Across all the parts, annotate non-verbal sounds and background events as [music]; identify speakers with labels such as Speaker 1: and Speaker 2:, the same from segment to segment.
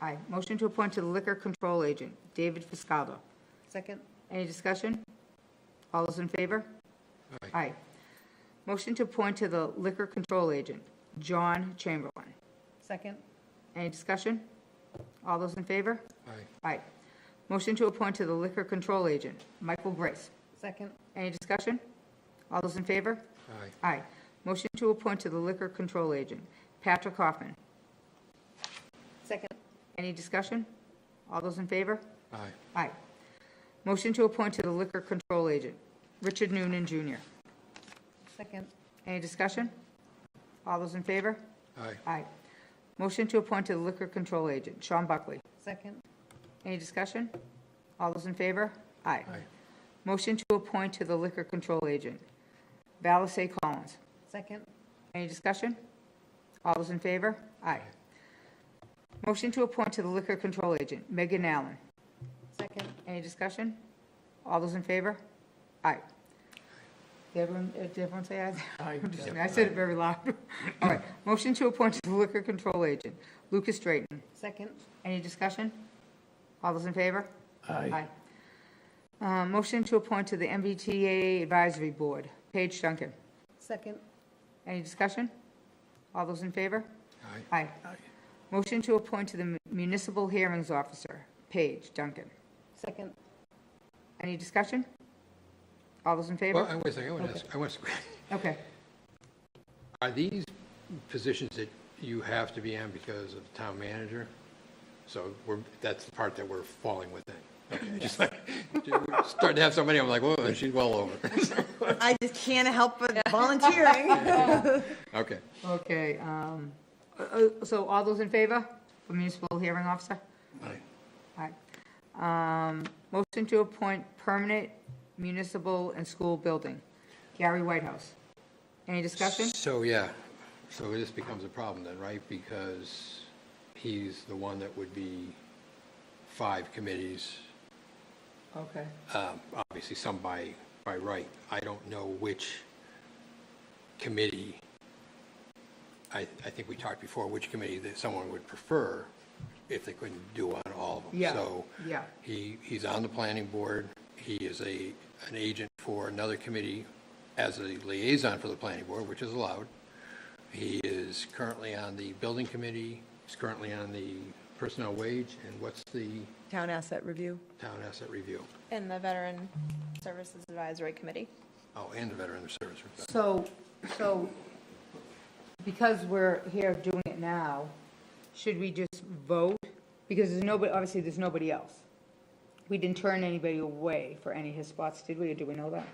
Speaker 1: Aye. Motion to appoint to the Liquor Control Agent, David Fiscaldo.
Speaker 2: Second?
Speaker 1: Any discussion? All those in favor?
Speaker 3: Aye.
Speaker 1: Motion to appoint to the Liquor Control Agent, John Chamberlain.
Speaker 2: Second?
Speaker 1: Any discussion? All those in favor?
Speaker 3: Aye.
Speaker 1: Aye. Motion to appoint to the Liquor Control Agent, Michael Grace.
Speaker 2: Second?
Speaker 1: Any discussion? All those in favor?
Speaker 3: Aye.
Speaker 1: Aye. Motion to appoint to the Liquor Control Agent, Patrick Hoffman.
Speaker 2: Second?
Speaker 1: Any discussion? All those in favor?
Speaker 3: Aye.
Speaker 1: Aye. Motion to appoint to the Liquor Control Agent, Richard Noonan Jr.
Speaker 2: Second?
Speaker 1: Any discussion? All those in favor?
Speaker 3: Aye.
Speaker 1: Aye. Motion to appoint to the Liquor Control Agent, Sean Buckley.
Speaker 2: Second?
Speaker 1: Any discussion? All those in favor? Aye.
Speaker 3: Aye.
Speaker 1: Motion to appoint to the Liquor Control Agent, Valise Collins.
Speaker 2: Second?
Speaker 1: Any discussion? All those in favor? Aye. Motion to appoint to the Liquor Control Agent, Megan Allen.
Speaker 2: Second?
Speaker 1: Any discussion? All those in favor? Aye. Did everyone, uh, did everyone say aye? [laughs] Aye. I said it very loud. [laughs] All right, motion to appoint to the Liquor Control Agent, Lucas Drayton.
Speaker 2: Second?
Speaker 1: Any discussion? All those in favor? Aye. Uh, Motion to appoint to the MBTA Advisory Board, Paige Duncan.
Speaker 2: Second?
Speaker 1: Any discussion? All those in favor?
Speaker 3: Aye.
Speaker 1: Aye. Motion to appoint to the Municipal Hearings Officer, Paige Duncan.
Speaker 2: Second?
Speaker 1: Any discussion? All those in
Speaker 3: Well,
Speaker 1: favor?
Speaker 3: I was, I want to ask, [laughs] I want to,
Speaker 1: Okay.
Speaker 3: are these positions that you have to be on because of town manager? So we're, that's the part that we're falling within. Okay, just [laughs] like, starting to have somebody, I'm like, whoa, she's well over. [laughs]
Speaker 4: I just can't help but volunteering.
Speaker 3: Okay.
Speaker 1: Okay, um, uh, uh, so all those in favor for municipal hearing officer?
Speaker 3: Aye.
Speaker 1: Aye. Um, Motion to appoint permanent municipal and school building, Gary Whitehouse. Any discussion?
Speaker 3: So, yeah, so this becomes a problem then, right? Because he's the one that would be five committees,
Speaker 1: Okay.
Speaker 3: um, obviously some by, by right. I don't know which committee, I, I think we talked before, which committee that someone would prefer if they couldn't do on all of them.
Speaker 1: Yeah,
Speaker 3: So
Speaker 1: yeah.
Speaker 3: he, he's on the planning board. He is a, an agent for another committee as a liaison for the planning board, which is allowed. He is currently on the building committee. He's currently on the personnel wage. And what's the
Speaker 4: Town asset review.
Speaker 3: town asset review?
Speaker 5: In the Veteran Services Advisory Committee.
Speaker 3: Oh, and the Veteran Service. Rep.
Speaker 1: So, so because we're here doing it now, should we just vote? Because there's nobody, obviously, there's nobody else. We didn't turn anybody away for any of his spots, did we, or do we know that?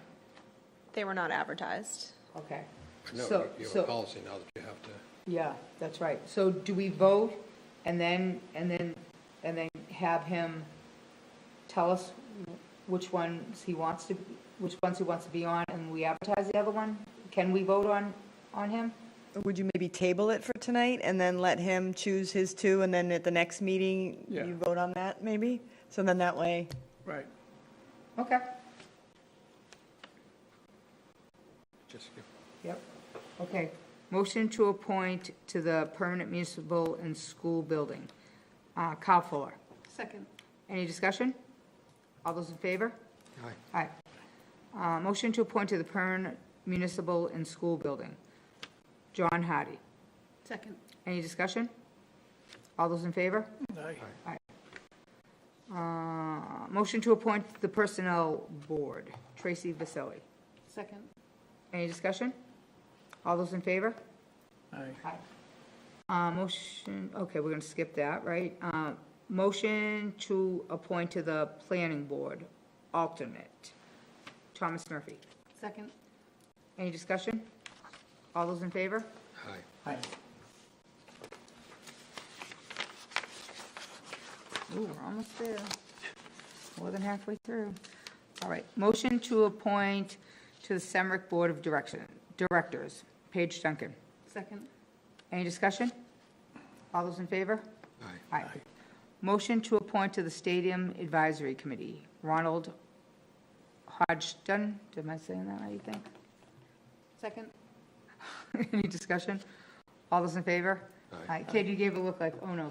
Speaker 5: They were not advertised.
Speaker 1: Okay.
Speaker 3: But No,
Speaker 1: So-
Speaker 3: you have
Speaker 1: so-
Speaker 3: a policy now that you have to,
Speaker 1: Yeah, that's right. So do we vote and then, and then, and then have him tell us which ones he wants to, which ones he wants to be on and we advertise the other one? Can we vote on, on him?
Speaker 4: Would you maybe table it for tonight and then let him choose his two, and then at the next meeting, you vote on that, maybe? So then that way,
Speaker 6: Right.
Speaker 1: Okay.
Speaker 3: just,
Speaker 1: Yep. Okay. Motion to appoint to the Permanent Municipal and School Building, uh, Kyle Fuller.
Speaker 2: Second?
Speaker 1: Any discussion? All those in favor?
Speaker 3: aye,
Speaker 1: Aye. Uh, Motion to appoint to the Permanent Municipal and School Building, John Hattie.
Speaker 2: Second?
Speaker 1: Any discussion? All those in favor?
Speaker 6: Aye.
Speaker 1: Uh, Motion to appoint the Personnel Board, Tracy Vasselli.
Speaker 2: Second?
Speaker 1: Any discussion? All those in favor?
Speaker 6: Aye.
Speaker 1: Uh, Motion, okay, we're going to skip that, right? Uh, Motion to appoint to the Planning Board, alternate, Thomas Murphy.
Speaker 2: Second?
Speaker 1: Any discussion? All those in favor?
Speaker 3: aye.
Speaker 6: Aye.
Speaker 1: Ooh, we're almost there. More than halfway through. All right, motion to appoint to the Semrick Board of Direction, Directors, Paige Duncan.
Speaker 2: Second?
Speaker 1: Any discussion? All those in favor?
Speaker 3: Aye.
Speaker 1: Aye. Motion to appoint to the Stadium Advisory Committee, Ronald Hodgson. Am I saying that right, you think? [laughs]
Speaker 2: Second?
Speaker 1: Any discussion? All those in favor?
Speaker 3: Aye.
Speaker 1: Katie, you gave a look like, oh no,